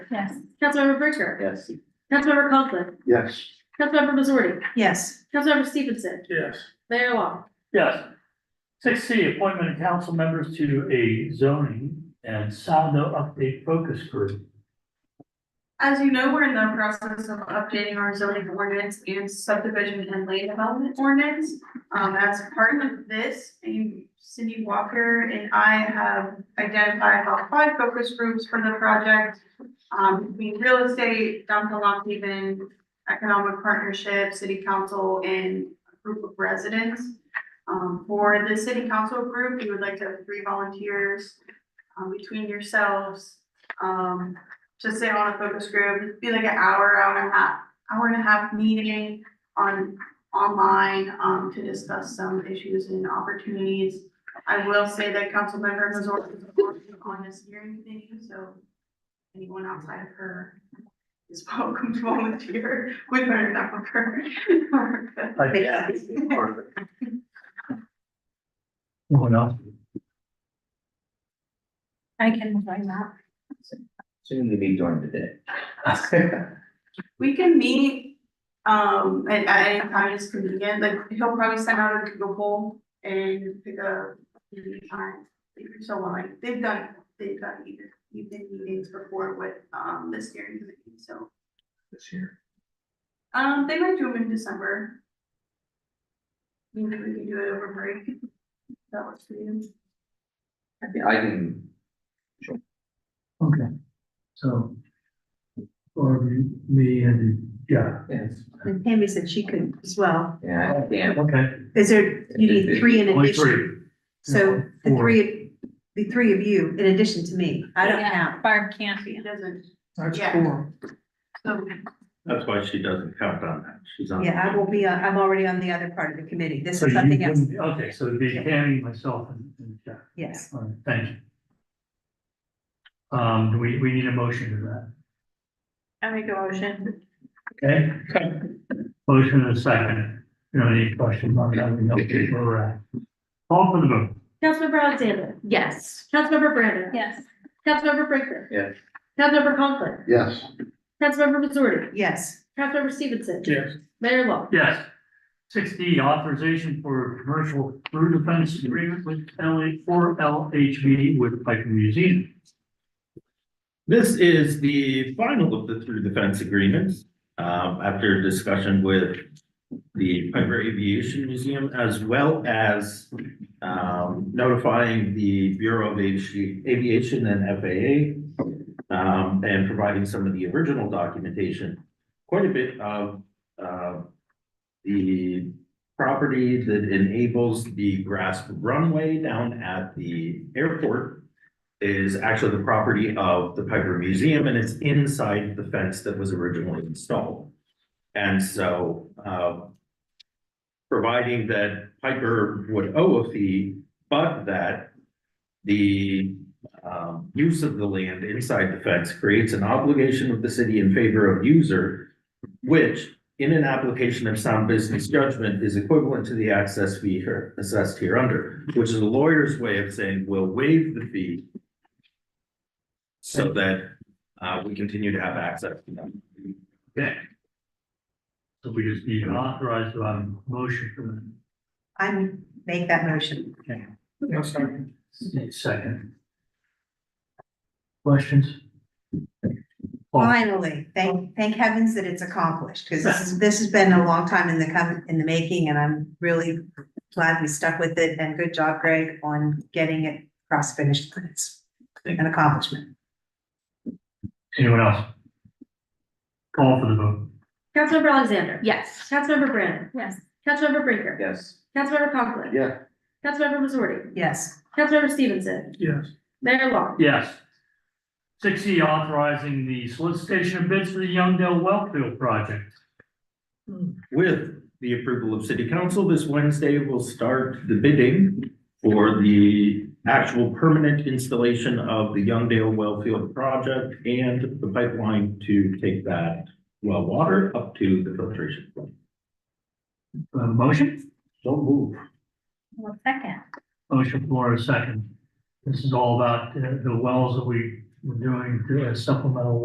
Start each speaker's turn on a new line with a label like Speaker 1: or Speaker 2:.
Speaker 1: Yes.
Speaker 2: Councilmember Bricker.
Speaker 3: Yes.
Speaker 2: Councilmember Conklin.
Speaker 3: Yes.
Speaker 2: Councilmember Missouri.
Speaker 1: Yes.
Speaker 2: Councilmember Stevenson.
Speaker 4: Yes.
Speaker 2: Mayor Long.
Speaker 4: Yes. Six C, appointment of council members to a zoning and Saldo update focus group.
Speaker 5: As you know, we're in the process of updating our zoning ordinance and subdivision and land development ordinance. Um, as part of this, you- Cindy Walker and I have identified about five focus groups for the project. Um, between real estate, downtown Lockhaven, economic partnership, city council, and a group of residents. Um, for the city council group, we would like to have three volunteers, um, between yourselves. Um, to sit on a focus group, it'd be like an hour, hour and a half, hour and a half meeting on, online, um, to discuss some issues and opportunities. I will say that Councilmember Missouri is working on this hearing thing, so anyone outside of her is welcome to volunteer with her, not with her.
Speaker 4: Like,
Speaker 3: Yeah. Part of it.
Speaker 4: no one else?
Speaker 1: I can join that.
Speaker 3: Soon to be during the day.
Speaker 5: We can meet, um, at, at any time is convenient, like, he'll probably send out a Google poll and pick a meeting time. If you're so willing, they've done, they've done even, evening meetings before with, um, the steering committee, so.
Speaker 3: This year.
Speaker 5: Um, they might do them in December. Maybe we can do it over break. If That works for you.
Speaker 3: I think I can,
Speaker 4: Okay, so. Or me and, yeah.
Speaker 3: yes,
Speaker 1: And Tammy said she could as well.
Speaker 3: yeah, I can.
Speaker 4: Okay.
Speaker 1: Is there, you need three in
Speaker 4: Only
Speaker 1: addition,
Speaker 4: three.
Speaker 1: so the
Speaker 4: Four.
Speaker 1: three, the three of you in addition to me, I don't
Speaker 2: Yeah,
Speaker 1: count.
Speaker 2: Barb can't be.
Speaker 5: He doesn't,
Speaker 4: That's
Speaker 5: Yeah.
Speaker 4: four.
Speaker 5: so
Speaker 6: That's why she doesn't count on that. She's on.
Speaker 1: Yeah, I will be, uh, I'm already on the other part of the committee, this
Speaker 4: So
Speaker 1: is
Speaker 4: you
Speaker 1: something else,
Speaker 4: wouldn't- Okay, so it'd be Tammy, myself, and, and Jeff.
Speaker 1: yes.
Speaker 4: All right, thank you. Um, do we, we need a motion to that,
Speaker 2: I make a motion.
Speaker 4: okay? Motion and a second, you know, any questions on that, we know where we're at. Call for the vote.
Speaker 2: Councilmember Alexander.
Speaker 1: Yes.
Speaker 2: Councilmember Brandon.
Speaker 1: Yes.
Speaker 2: Councilmember Bricker.
Speaker 3: Yes.
Speaker 2: Councilmember Conklin.
Speaker 3: Yes.
Speaker 2: Councilmember Missouri.
Speaker 1: Yes,
Speaker 2: Councilmember Stevenson.
Speaker 4: Yes.
Speaker 2: Mayor Long.
Speaker 4: Yes. Six D, authorization for commercial through defense agreement with LA, for LHB with Piper Museum.
Speaker 6: This is the final of the through the fence agreements, um, after discussion with the Piper Aviation Museum as well as um, notifying the Bureau of Avi- Aviation and FAA um, and providing some of the original documentation. Quite a bit of, uh, the property that enables the grass runway down at the airport is actually the property of the Piper Museum and it's inside the fence that was originally installed. And so, uh, providing that Piper would owe a fee, but that the, um, use of the land inside the fence creates an obligation of the city in favor of user, which in an application of sound business judgment is equivalent to the access fee here assessed here under, which is a lawyer's way of saying we'll waive the fee so that uh we continue to have access to them.
Speaker 4: Okay. So we just need to authorize a motion for them.
Speaker 1: I make that motion.
Speaker 4: Okay. No, sorry. Second. Questions? Well-
Speaker 1: Finally, thank, thank heavens that it's accomplished, because this is, this has been a long time in the com in the making, and I'm really glad we stuck with it, and good job, Greg, on getting it cross finished. It's an accomplishment.
Speaker 4: Anyone else? Call for the vote.
Speaker 2: Councilmember Alexander.
Speaker 1: Yes.
Speaker 2: Councilmember Brandon.
Speaker 1: Yes.
Speaker 2: Councilmember Bricker.
Speaker 3: Yes.
Speaker 2: Councilmember Conklin.
Speaker 3: Yeah.
Speaker 2: Councilmember Missouri.
Speaker 1: Yes,
Speaker 2: Councilmember Stevenson.
Speaker 4: Yes.
Speaker 2: Mayor Long.
Speaker 4: Yes. Six E, authorizing the solicitation of bids for the Youngdale Wellfield Project.
Speaker 6: With the approval of city council, this Wednesday we will start the bidding for the actual permanent installation of the Youngdale Wellfield project and the pipeline to take that well water up to the filtration. plant.
Speaker 4: Uh, motion?
Speaker 6: Don't move.
Speaker 2: One second.
Speaker 4: Motion for a second. This is all about uh, the wells that we were doing, uh, supplemental